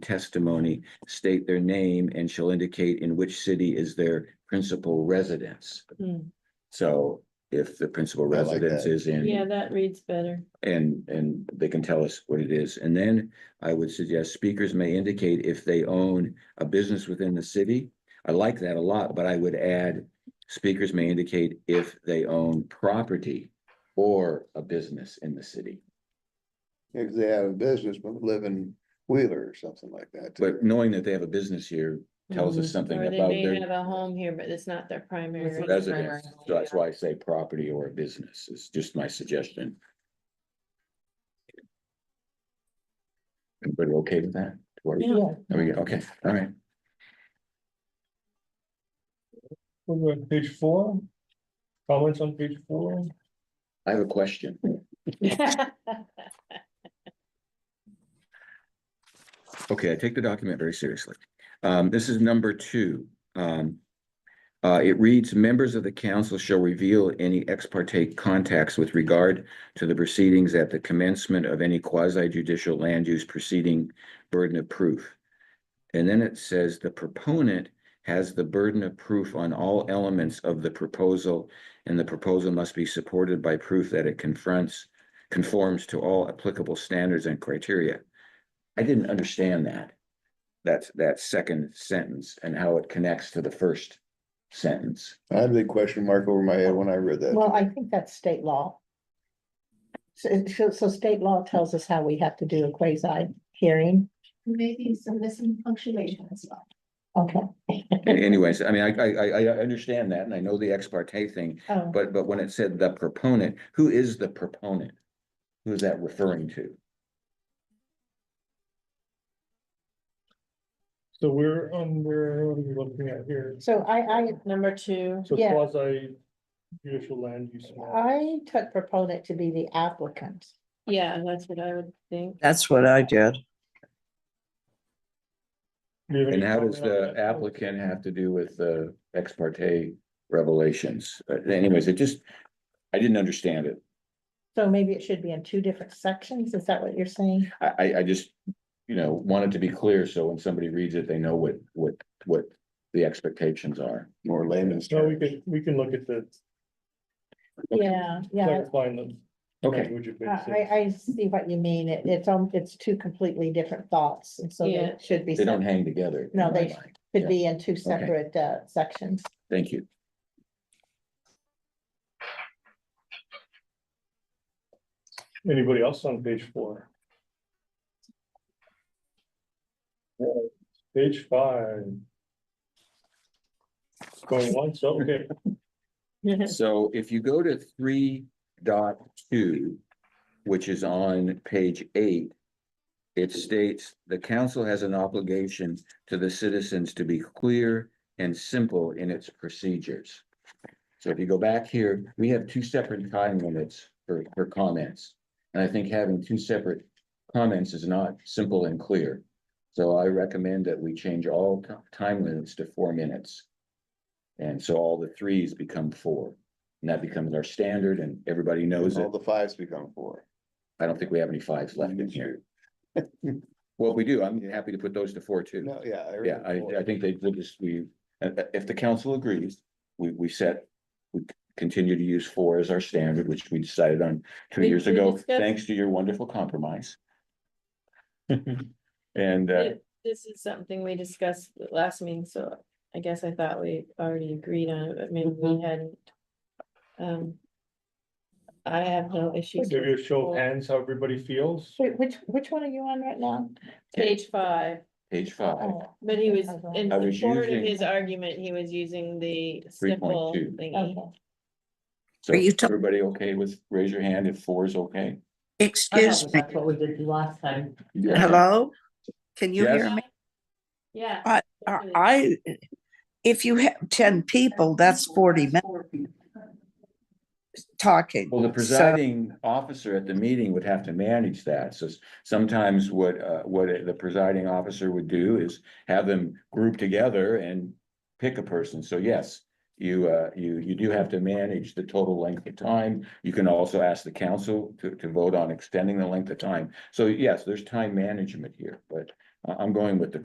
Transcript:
testimony, state their name and shall indicate in which city is their principal residence. Hmm. So if the principal I like residence that. is in. Yeah, that reads better. And, and they can tell us what it is. And then I would suggest speakers may indicate if they own a business within the city. I like that a lot, but I would add, speakers may indicate if they own property or a business in the city. If they have a business, but live in Wheeler or something like that. too. But knowing that they have a business here tells us something Mm-hmm. Hmm. Or they about may have their a home here, but it's not their primary. That's what- residence. So that's why I say property or a business. It's just my suggestion. Everybody okay with that? Or- Yeah. There we go. Okay, all right. We're on page four. Comments on page four? I have a question. Okay, I take the document very seriously. Um, this is number two. Um. Uh, it reads, members of the council shall reveal any ex parte contacts with regard to the proceedings at the commencement of any quasi judicial land use proceeding burden of proof. And then it says the proponent has the burden of proof on all elements of the proposal. And the proposal must be supported by proof that it confronts, conforms to all applicable standards and criteria. I didn't understand that. That's that second sentence and how it connects to the first sentence. I had a big question mark over my head when I read that. Well, I think that's state law. So, so, so state law tells us how we have to do a quasi hearing. Maybe some missing punctuation as well. Okay. Anyways, I mean, I I I I understand that and I know the ex parte thing, Um, Oh, but but when it said the proponent, who is the proponent? Who is that referring to? So we're under, what are we looking at here? So I, Number two, So yeah. Uh, quasi judicial land use. I, I took proponent to be the applicant. yeah, that's what I would think. That's what I did. Do you have And any how does comment on the that? applicant have to do with the ex parte revelations? But anyways, it just, I didn't understand it. So maybe it should be in two different sections. Is that what you're saying? I, I, I just, you know, want it to be clear, so when somebody reads it, they know what, what, what the expectations are. More layman's No, we term. can, we can look at the Yeah, yeah. clarifying them. Okay, Would you I, I I see what you mean. It, it's, um, it's two completely different thoughts and so they Yeah. should be, they don't sep- hang together. in No, my they- mind. yeah. could be in two separate, uh, sections. Thank you. Anybody else on page four? Page five. Going once, okay, So if you go to three dot two, which is on page eight. It states the council has an obligation to the citizens to be clear and simple in its procedures. So if you go back here, we have two separate time limits for, for comments. And I think having two separate comments is not simple and clear. So I recommend that we change all ti- time limits to four minutes. And so all the threes become four. And that becomes our standard and everybody knows it. All the fives become four. I don't think we have any fives left in here. Well, if we do, I'm happy to put those to four too. No, yeah. read Yeah, I, I four. think they, we'll just, we, uh, uh, if the council agrees, we, we set, we continue to use four as our standard, which we decided on two Did years we ago, discuss- thanks to your wonderful compromise. And, uh, Thi- This is something we discussed at last meeting, so I guess I thought we already agreed on it, but maybe Mm-hmm. we hadn't. Um. I have no issues. give you a with show of hands, how everybody feels. Wait, Which, which one are you on right now? Page five, page five, Oh, but he was, in Okay. I was support of using- his argument, he was using the 3.2. simple thingy. Okay. so Are you ta- everybody okay with, raise your hand if four is okay? Excuse me, That's what we did last time. hello? Can you Yes. hear me? Yeah. I- I, uh, I- if you have ten people, that's forty minutes talking. Well, the So, presiding officer at the meeting would have to manage that, so s- sometimes what, uh, what the presiding officer would do is have them group together and pick a person, so yes, You, uh, you, you do have to manage the total length of time. You can also ask the council to, to vote on extending the length of time. So yes, there's time management here, but I- uh, I'm going with the